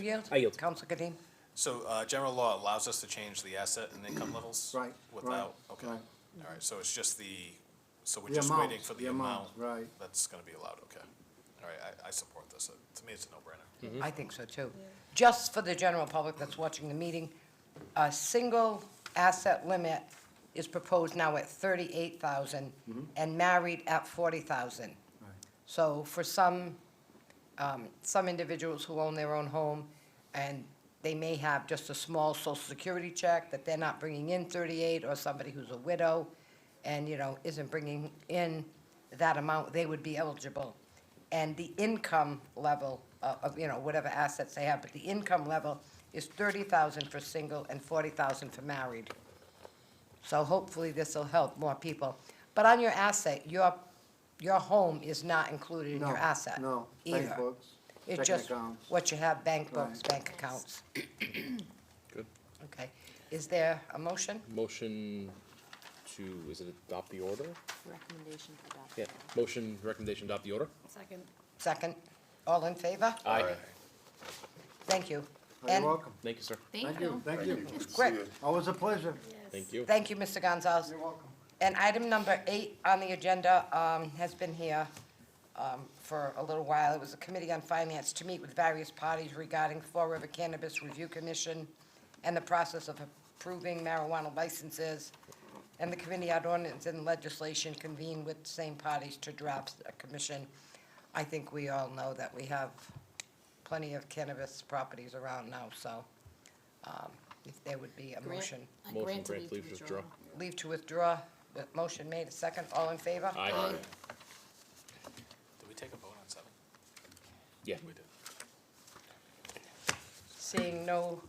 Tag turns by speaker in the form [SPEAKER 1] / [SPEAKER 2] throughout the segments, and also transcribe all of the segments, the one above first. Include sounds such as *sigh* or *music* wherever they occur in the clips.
[SPEAKER 1] You yield?
[SPEAKER 2] I yield.
[SPEAKER 1] Counsel Kadim?
[SPEAKER 3] So, uh, general law allows us to change the asset and
[SPEAKER 4] *clears throat*
[SPEAKER 3] income levels?
[SPEAKER 4] Right, right,
[SPEAKER 3] Without, okay.
[SPEAKER 4] right.
[SPEAKER 3] All right, so it's just the, so we're
[SPEAKER 4] The
[SPEAKER 3] just
[SPEAKER 4] amount,
[SPEAKER 3] waiting for
[SPEAKER 4] the
[SPEAKER 3] the amount?
[SPEAKER 4] amount, right.
[SPEAKER 3] That's gonna be allowed, okay. All right, I, I support this. Uh, To me, it's a no-brainer.
[SPEAKER 1] I think so too. Just for the general public that's watching the meeting, a single asset limit is proposed now at thirty-eight thousand and married at forty thousand. So for some, um, some individuals who own their own home and they may have just a small social security check that they're not bringing in thirty-eight or somebody who's a widow and, you know, isn't bringing in that amount, they would be eligible. And the income level of, of, you know, whatever assets they have, but the income level is thirty thousand for single and forty thousand for married. So hopefully this will help more people. But on your asset, your, your home is not included in
[SPEAKER 4] No,
[SPEAKER 1] your asset.
[SPEAKER 4] No,
[SPEAKER 1] either.
[SPEAKER 4] bank books,
[SPEAKER 1] It's
[SPEAKER 4] checking
[SPEAKER 1] just
[SPEAKER 4] accounts.
[SPEAKER 1] what you have, bank books,
[SPEAKER 4] Right.
[SPEAKER 1] bank accounts.
[SPEAKER 2] Good.
[SPEAKER 1] Okay. Is there a motion?
[SPEAKER 2] Motion to, is it adopt the order?
[SPEAKER 5] Recommendation to adopt.
[SPEAKER 2] Yeah, motion, recommendation, adopt the order?
[SPEAKER 5] Second.
[SPEAKER 1] Second? All in favor?
[SPEAKER 2] Aye.
[SPEAKER 1] Thank you.
[SPEAKER 4] Oh, You're
[SPEAKER 1] And
[SPEAKER 4] welcome.
[SPEAKER 2] Thank you, sir.
[SPEAKER 4] Thank you, thank you.
[SPEAKER 1] Quick.
[SPEAKER 4] Always a pleasure.
[SPEAKER 2] Thank you.
[SPEAKER 1] Thank you, Mr. Gonzalez.
[SPEAKER 4] You're welcome.
[SPEAKER 1] And item number eight on the agenda um, has been here um, for a little while. It was a committee on finance to meet with various parties regarding Fall River Cannabis Review Commission and the process of approving marijuana licenses. And the committee on ordinance and legislation convened with same parties to draft a commission. I think we all know that we have plenty of cannabis properties around now, so um, if there would be a motion
[SPEAKER 2] Motion, grant, leave, withdraw.
[SPEAKER 1] leave to withdraw. The Motion made, a second, all in favor?
[SPEAKER 2] Aye.
[SPEAKER 3] Did we take a vote on seven?
[SPEAKER 2] Yeah.
[SPEAKER 3] We did.
[SPEAKER 1] Seeing no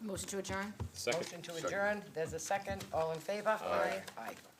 [SPEAKER 5] Motion to adjourn?
[SPEAKER 2] Second.
[SPEAKER 1] motion to adjourn, there's a second, all in favor? Aye. Aye.